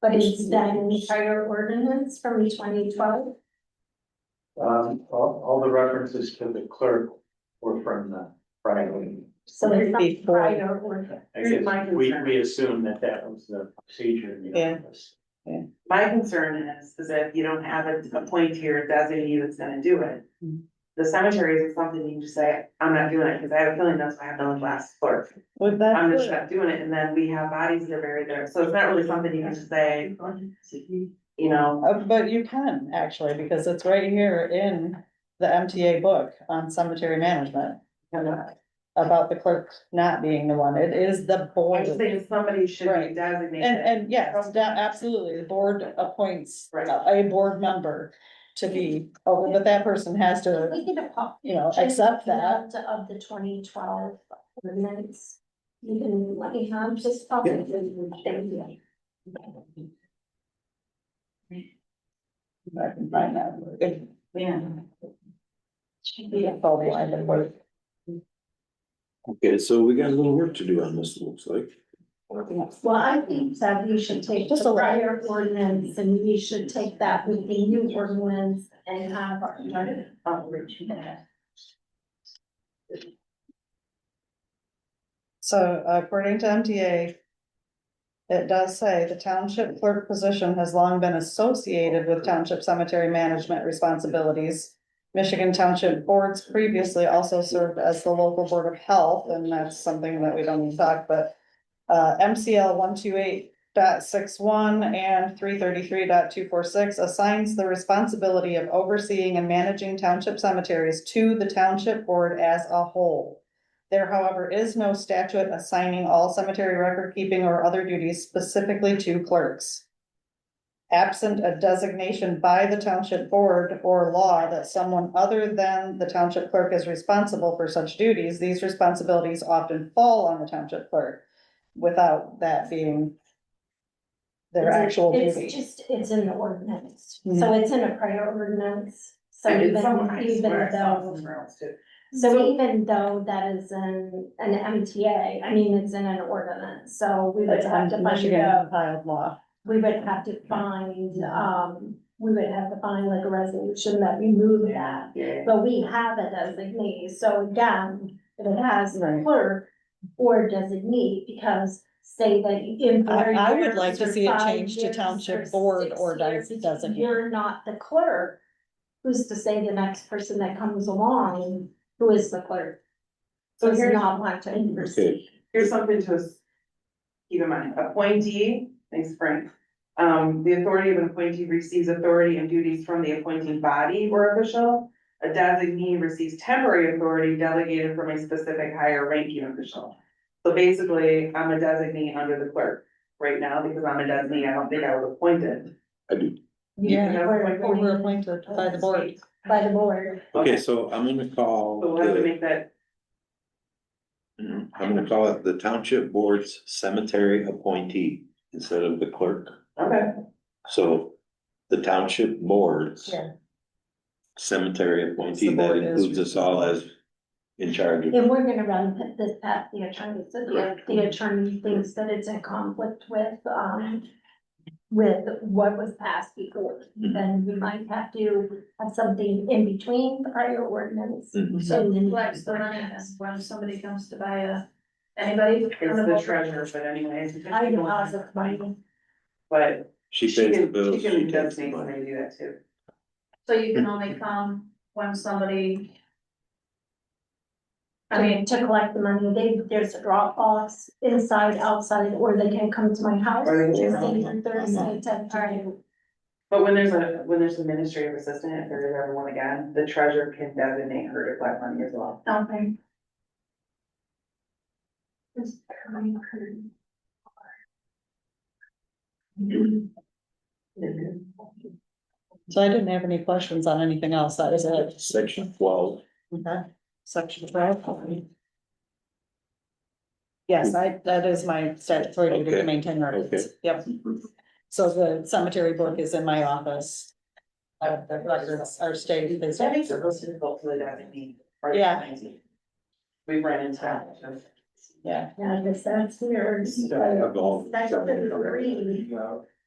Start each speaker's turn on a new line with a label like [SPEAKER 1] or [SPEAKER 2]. [SPEAKER 1] But it's then prior ordinance from twenty twelve.
[SPEAKER 2] Um, all, all the references to the clerk were from the prior. meeting.
[SPEAKER 1] So it's not
[SPEAKER 3] Before.
[SPEAKER 1] prior ordinance.
[SPEAKER 2] I
[SPEAKER 4] Here's
[SPEAKER 2] guess
[SPEAKER 4] my
[SPEAKER 2] we,
[SPEAKER 4] concern.
[SPEAKER 2] we assume that that was the procedure in the
[SPEAKER 3] Yeah.
[SPEAKER 2] office.
[SPEAKER 4] My concern is, is if you don't have a, a point here designated that's gonna do it.
[SPEAKER 3] Mhm.
[SPEAKER 4] The cemetery is something you can just say, I'm not doing it, cause I have a feeling that's why I have no last clerk.
[SPEAKER 3] Well,
[SPEAKER 4] I'm
[SPEAKER 3] that's good.
[SPEAKER 4] just not doing it, and then we have bodies that are buried there, so it's not really something you can just say, you know.
[SPEAKER 3] Uh, but you can actually, because it's right here in the MTA book on cemetery management. About the clerk not being the one, it is the
[SPEAKER 4] I'm
[SPEAKER 3] board. And,
[SPEAKER 4] just saying somebody should be
[SPEAKER 3] Right.
[SPEAKER 4] designated.
[SPEAKER 3] and yes, da- absolutely, the board appoints
[SPEAKER 4] Right.
[SPEAKER 3] a a board member to be, oh, but that person has to,
[SPEAKER 1] We get a pop.
[SPEAKER 3] you know, accept that.
[SPEAKER 1] Of the twenty twelve ordinance. You can let me have just pop it. Thank you.
[SPEAKER 3] If I can find that. If-
[SPEAKER 4] Yeah.
[SPEAKER 3] if all the line of work,
[SPEAKER 5] Okay, so we got a little work to do on this, it looks like.
[SPEAKER 1] Well, I think that you should take
[SPEAKER 3] Just
[SPEAKER 1] the
[SPEAKER 3] a little.
[SPEAKER 1] prior ordinance and we should take that with the new ordinance and have our.
[SPEAKER 3] So according to MTA. It does say the township clerk position has long been associated with township cemetery management responsibilities. Michigan Township Boards previously also served as the local board of health, and that's something that we don't need to talk, but. Uh, MCL one two eight dot six one and three thirty-three dot two four six assigns the responsibility of overseeing and managing township cemeteries to the township board as a whole. There however is no statute assigning all cemetery record keeping or other duties specifically to clerks. Absent a designation by the township board or law that someone other than the township clerk is responsible for such duties, these responsibilities often fall on the township clerk. Without that being. Their actual duty.
[SPEAKER 1] It's just, it's in the ordinance, so
[SPEAKER 3] Mhm.
[SPEAKER 1] it's in a prior ordinance, so
[SPEAKER 4] I
[SPEAKER 1] even,
[SPEAKER 4] did some, I
[SPEAKER 1] even
[SPEAKER 4] swear, I saw it
[SPEAKER 1] though.
[SPEAKER 4] somewhere else too.
[SPEAKER 1] So even though that is an, an MTA, I mean, it's in an ordinance, so we would
[SPEAKER 3] That's
[SPEAKER 1] have to
[SPEAKER 3] on
[SPEAKER 1] find
[SPEAKER 3] Michigan
[SPEAKER 1] out.
[SPEAKER 3] compiled law.
[SPEAKER 1] We would have to find, um, we would have to find like a resolution that removed that,
[SPEAKER 4] Yeah.
[SPEAKER 1] but we have a designee, so again, if it has
[SPEAKER 3] Right.
[SPEAKER 1] clerk or designee, because say that in four
[SPEAKER 3] I- I would
[SPEAKER 1] years
[SPEAKER 3] like to
[SPEAKER 1] or
[SPEAKER 3] see it
[SPEAKER 1] five
[SPEAKER 3] changed to
[SPEAKER 1] years
[SPEAKER 3] township
[SPEAKER 1] or
[SPEAKER 3] board
[SPEAKER 1] six
[SPEAKER 3] or
[SPEAKER 1] years,
[SPEAKER 3] des- designee.
[SPEAKER 1] You're not the clerk, who's to say the next person that comes along, who is the clerk?
[SPEAKER 4] So
[SPEAKER 1] does
[SPEAKER 4] here's-
[SPEAKER 1] not want to intercede.
[SPEAKER 4] here's something to us- keep in mind, appointee, thanks Frank. Um, the authority of an appointee receives authority and duties from the appointing body or official. A designee receives temporary authority delegated from a specific higher ranking official. So basically, I'm a designee under the clerk right now because I'm a designee, I don't think I was appointed.
[SPEAKER 5] I do.
[SPEAKER 3] Yeah.
[SPEAKER 4] You know, like,
[SPEAKER 3] Or we're appointed by the board.
[SPEAKER 1] By the board,
[SPEAKER 5] Okay, so I'm gonna call,
[SPEAKER 4] So we'll have to
[SPEAKER 5] the-
[SPEAKER 4] make that,
[SPEAKER 5] I'm gonna call it the Township Board's Cemetery Appointee instead of the clerk.
[SPEAKER 4] okay,
[SPEAKER 5] So the Township Board's
[SPEAKER 3] Yeah.
[SPEAKER 5] Cemetery Appointee,
[SPEAKER 3] The
[SPEAKER 5] that
[SPEAKER 3] board is
[SPEAKER 5] includes us all as in charge of.
[SPEAKER 1] and we're gonna run put this past the attorney, so the, the attorney thinks that it's in conflict with, um. With what was passed before, then we might have to have something in between the prior ordinance.
[SPEAKER 5] Mhm.
[SPEAKER 1] So then
[SPEAKER 6] flex the money as when somebody comes to buy a, anybody.
[SPEAKER 4] it's the treasurer, but anyways.
[SPEAKER 1] I deposit money,
[SPEAKER 4] But
[SPEAKER 5] She
[SPEAKER 4] she
[SPEAKER 5] pays the
[SPEAKER 4] can,
[SPEAKER 5] bills.
[SPEAKER 4] she can
[SPEAKER 5] she takes the
[SPEAKER 4] designate when
[SPEAKER 5] money.
[SPEAKER 4] they do that too.
[SPEAKER 6] So you can only come when somebody.
[SPEAKER 1] I mean, to collect the money, they, there's a drop box inside, outside, or they can come to my house.
[SPEAKER 4] Or they can-
[SPEAKER 1] Tuesday through Thursday, ten to
[SPEAKER 4] But when there's a, when there's an administrative assistant, if there is ever one again, the treasurer can designate her to collect money as well.
[SPEAKER 6] Okay.
[SPEAKER 3] So I didn't have any questions on anything else, that is it.
[SPEAKER 5] Section twelve.
[SPEAKER 3] Okay. Section twelve. Yes, I, that is my statutory duty to
[SPEAKER 5] Okay,
[SPEAKER 3] maintain records,
[SPEAKER 5] okay.
[SPEAKER 3] yep. So the cemetery book is in my office. Uh, the records are stated. as-
[SPEAKER 4] That makes it real difficult for the designee. right?
[SPEAKER 3] Yeah.
[SPEAKER 4] We ran into that.
[SPEAKER 3] Yeah,
[SPEAKER 1] Yeah, this, that's weird.
[SPEAKER 5] Yeah, I've all-
[SPEAKER 1] Section three.